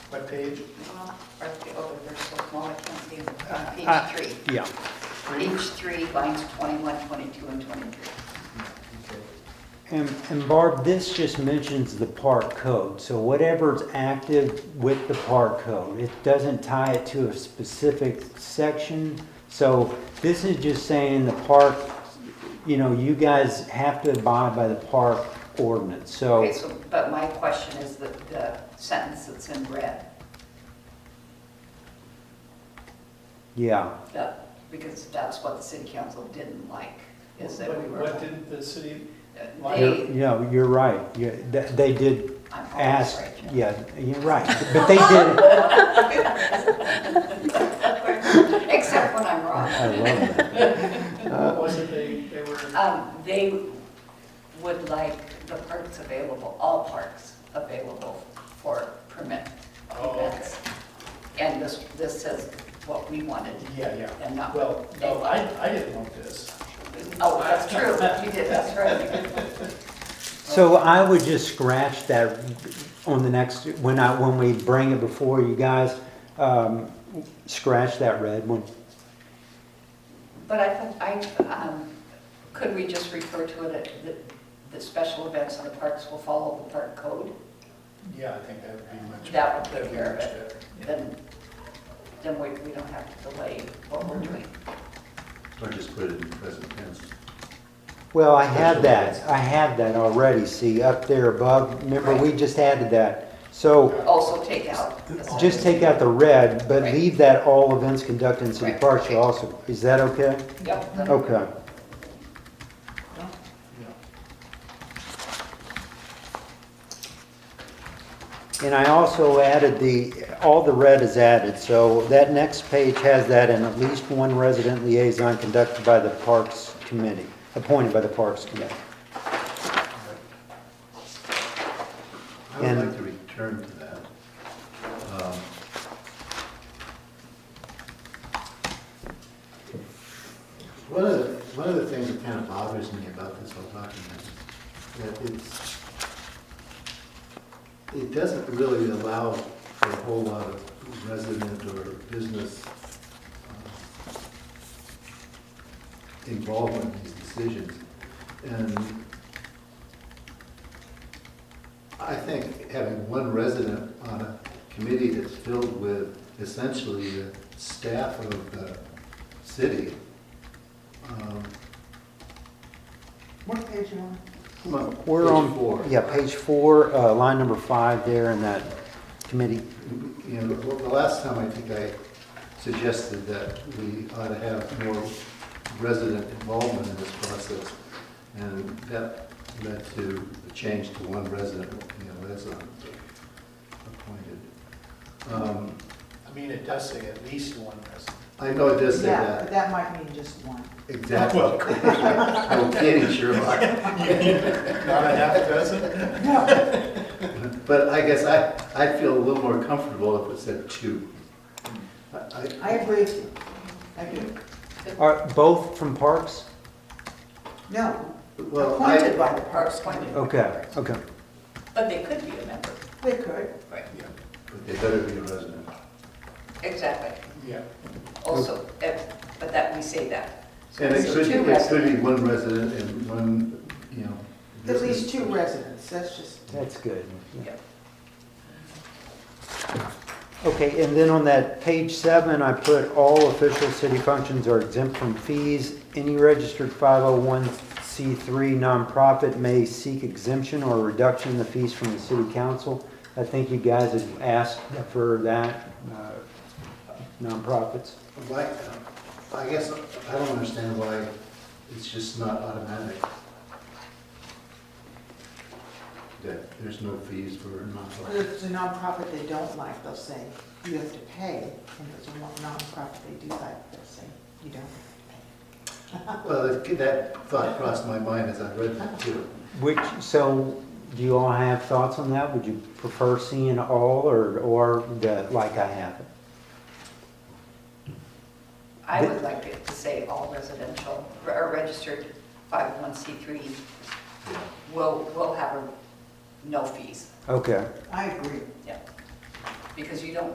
What page? Uh, Right, the other, they're so small, I can't see them. Uh, Page three. Yeah, Three? Page three, lines 21, 22, and 23. Okay. and and Barb, this just mentions the park code, so whatever's active with the park code, it doesn't tie it to a specific section. So this is just saying the park, you know, you guys have to abide by the park ordinance, so. Okay, so, but my question is the, the sentence that's in red, Yeah, that, because that's what the city council didn't like, is that we What- were. What did the city, uh, you're, They, yeah, you're right. You- th- They did I'm always ask, right. Jim. yeah, you're right. But they did, Except when I'm wrong. I love that. Uh, what was it they, they were, Um, They would like the parks available, all parks available for permit Oh, okay. events. And this, this says what we wanted yeah, yeah. and not Well, what they no, I, wanted. I didn't want this. Oh, that's true, you did, that's right. So I would just scratch that on the next, when I, when we bring it before you guys, um, scratch that red one. But I thought, I, um, could we just refer to it, at the, the special events in the parks will follow the park code? Yeah, I think that would be much. That would that'd take be care of much it. better. Then, then we, we don't have to delay what we're Mm-hmm. doing. Or just put it in present tense. Well, I had that, I had that already, see, up there above, remember, we just added that. So Also take out. the just take out the red, but Right. leave that all events conducted in city Right. parks shall also, is that okay? Yep. Oh. that'll work. Okay. Yeah. And I also added the, all the red is added, so that next page has that and at least one resident liaison conducted by the Parks Committee, appointed by the Parks Committee. I would And- like to return to that. Um, One of, the- one of the things that kind of bothers me about this whole document is that it's, it doesn't really allow for a whole lot of resident or business uh, involvement in these decisions. And I think having one resident on a committee that's filled with essentially the staff of the city. um, What page you on? come on, We're page on- four. Yeah, page four, uh, line number five there in that committee. You know, the the last time I think I suggested that we ought to have more resident involvement in this process, and that led to a change to one resident, you know, liaison appointed. Um, I mean, it does say at least one resident. I know it does say Yeah, but that, that might mean just one. exactly. Well, I'm kidding, Sherlock. Not a half dozen? No, But I guess I, I feel a little more comfortable if it said two. I- I- I agree with you. I do. Are both from Parks? No, Well, I- appointed by the Parks Parks Committee. Point. Okay, okay. But they could be a member. They could. Right. Yeah, But they better be a resident. Exactly. Yeah. Also, if- but that, we say that. Oh. So And it it's could, two it could be residents. one resident and one, you know. At least two residents. residents, that's just, That's good. Yep. Okay, and then on that page seven, I put all official city functions are exempt from fees. Any registered 501c3 nonprofit may seek exemption or reduction in the fees from the city council. I think you guys had asked for that, uh, nonprofits. Why, I guess, I don't understand why it's just not automatic. That there's no fees for nonprofit. if it's a nonprofit they don't like, they'll say, you have to pay. And if it's a nonprofit they do like, they'll say, you don't have Well, it- that thought crossed my mind as I read that too. Which, so, do you all have thoughts on that? Would you prefer seeing all or, or the, like I have it? I would like it to say all residential, or registered 501c3 Yeah. will, will have a- no fees. Okay. to pay. I agree. Yeah. because you don't